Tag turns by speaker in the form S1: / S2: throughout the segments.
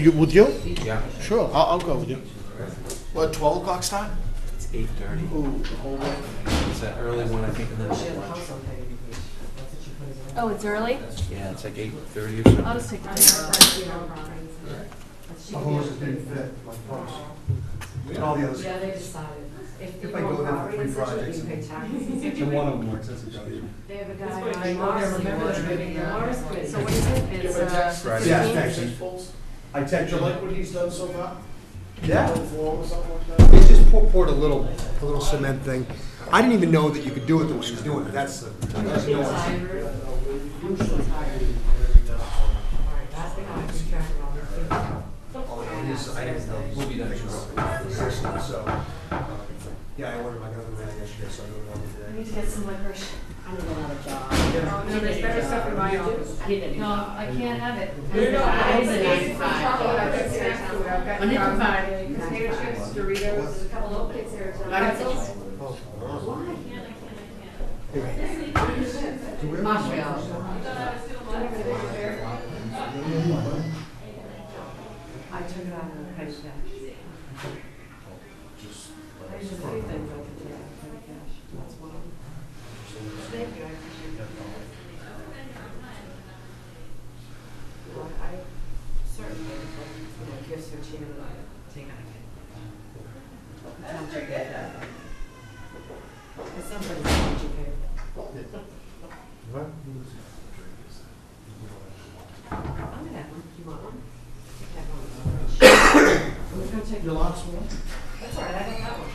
S1: You, with you?
S2: Yeah,
S1: Sure, I'll, I'll go with you. What, 12 o'clock start?
S2: it's eight thirty.
S1: Ooh, the whole way.
S2: It's an early one, I think, and then it's lunch.
S3: Oh, it's early?
S2: Yeah, it's like eight thirty or something.
S3: I'll just take the dinner.
S4: The horses didn't fit, like folks. And all the others.
S5: Yeah, they decided. If you
S4: If I go
S5: want
S4: there for three
S5: properties, that
S4: projects.
S5: you pay taxes.
S4: And one of them works, that's a W.
S5: They have a
S6: That's
S5: guy
S6: what I
S5: on Mars,
S6: remember doing,
S5: the
S6: yeah.
S5: Mars bid.
S3: So what is it? It's, uh,
S2: Friday.
S4: Yeah, actually, I
S1: Do you
S4: texted
S1: like
S4: him.
S1: what he's done so far?
S4: Yeah,
S1: Four or something like that?
S4: they just pour- poured a little, a little cement thing. I didn't even know that you could do it the way he's doing it, that's, the- that's no one.
S5: Alright, that's the guy who's tracking all the things.
S2: I didn't know. We'll be done at twelve.
S4: So, um, yeah, I ordered my other man yesterday, so I don't know
S5: I
S4: today.
S5: need to get some licorice. I need another job.
S6: Oh, no, there's better stuff in my office.
S5: I need a new
S3: No,
S5: job.
S3: I can't have it.
S6: We're not-
S5: I need a
S6: I've
S5: nine to
S6: got
S5: five
S6: chocolate, I've got
S5: job.
S6: snack food, I've got
S5: I need to
S6: um,
S5: find-
S6: potato chips, Doritos.
S5: There's a couple of kids there. so-
S6: I have to-
S4: Oh,
S5: Why?
S4: do we-
S5: Montreal. I took it out of the cash. I just think that I could take it out of the cash. That's one of them. Thank you, I appreciate that. Well, I certainly, you know, gifts are cheaper than I take out of it. Don't you get that? It's somebody's not you pay.
S4: What?
S5: I'm gonna have one. You want one? Take that one. We're gonna take.
S1: Your last one?
S5: That's all right, I got that one.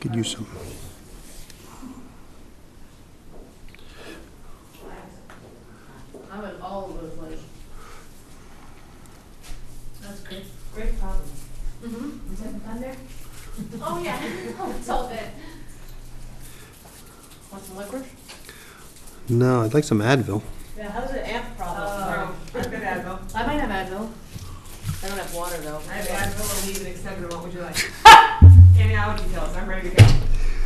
S4: Could use some.
S3: I'm in all of those places. That's good.
S5: Great problem.
S3: Mm-hmm. Is it done there? Oh, yeah. Oh, it's all good. Want some liquor?
S7: No, I'd like some Advil.
S3: Yeah, how's the amp
S6: Oh, I've got Advil.
S3: I might have Advil. I don't have water, though.
S6: I have Advil, Aleve, and Excedrin. What would you like? Any allergy pills. I'm ready to go.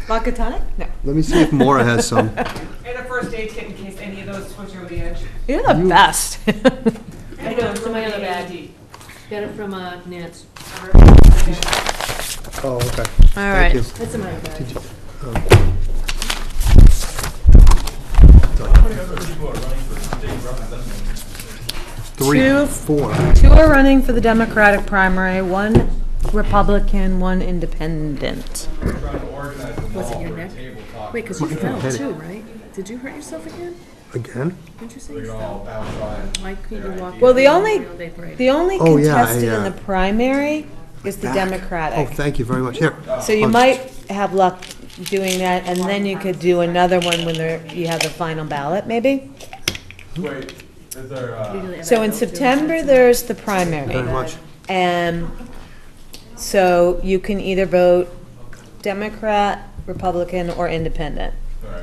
S5: Vodka tonic? No.
S7: Let me see if Mora has some.
S6: And a first aid kit in case any of those switch over the edge.
S5: You're the best.
S3: I know, it's in my other bag. Got it from, uh, Nance.
S7: Oh, okay.
S5: All
S7: Thank you.
S3: It's in my other bag.
S7: Three,
S8: Two.
S7: four.
S8: Two are running for the Democratic primary, one Republican, one independent.
S3: Was it your neck? Wait, because you fell too, right? Did you hurt yourself again?
S7: Again?
S3: Didn't you say you fell? Why couldn't you walk?
S8: Well, the only-
S3: They break.
S8: The only
S7: Oh, yeah,
S8: contested
S7: I,
S8: in
S7: uh,
S8: the primary is the
S7: Back. Oh,
S8: Democratic.
S7: thank you very much. Here.
S8: So you
S7: Oh,
S8: might have luck doing that, and then you could do another one when there- you have the final ballot, maybe?
S9: Wait, is there, uh,
S3: Usually I
S8: So
S3: have
S8: in
S3: those too.
S8: September, there's the
S7: Very
S8: primary.
S7: much.
S8: And so you can either vote Democrat, Republican, or independent.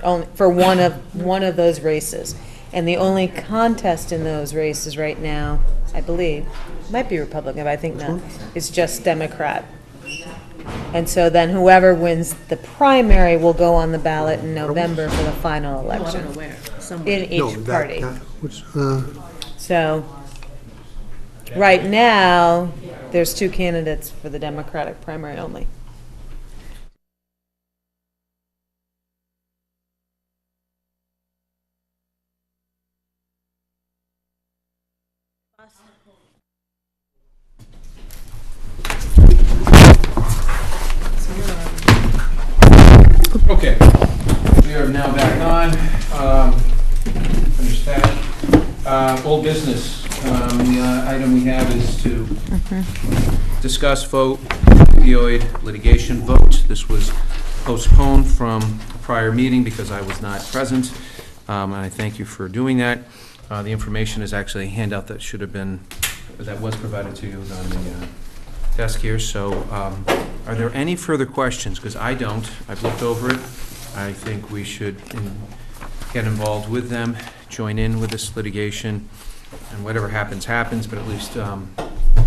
S8: only for one of one of those races. And the only contest in those races right now, I believe, might be Republican, but I think not, is just Democrat. And so then whoever wins the primary will go on the ballot in November for the final
S3: Oh, I don't know
S8: election
S3: where, somewhere.
S8: in
S7: No,
S8: each
S7: Oh, that-
S8: party.
S7: that- which, uh,
S8: So, right now, there's two candidates for the Democratic primary only.
S2: Okay, we are now back on, um, finished that. Uh, old business, um, the uh, item we have is to discuss vote opioid litigation vote. This was postponed from a prior meeting because I was not present, um, and I thank you for doing that. Uh, the information is actually a handout that should have been, that was provided to you It was on the, uh, desk here, so, um, are there any further questions? Because I don't, I've looked over it, I think we should in- get involved with them, join in with this litigation, and whatever happens, happens, but at least, um,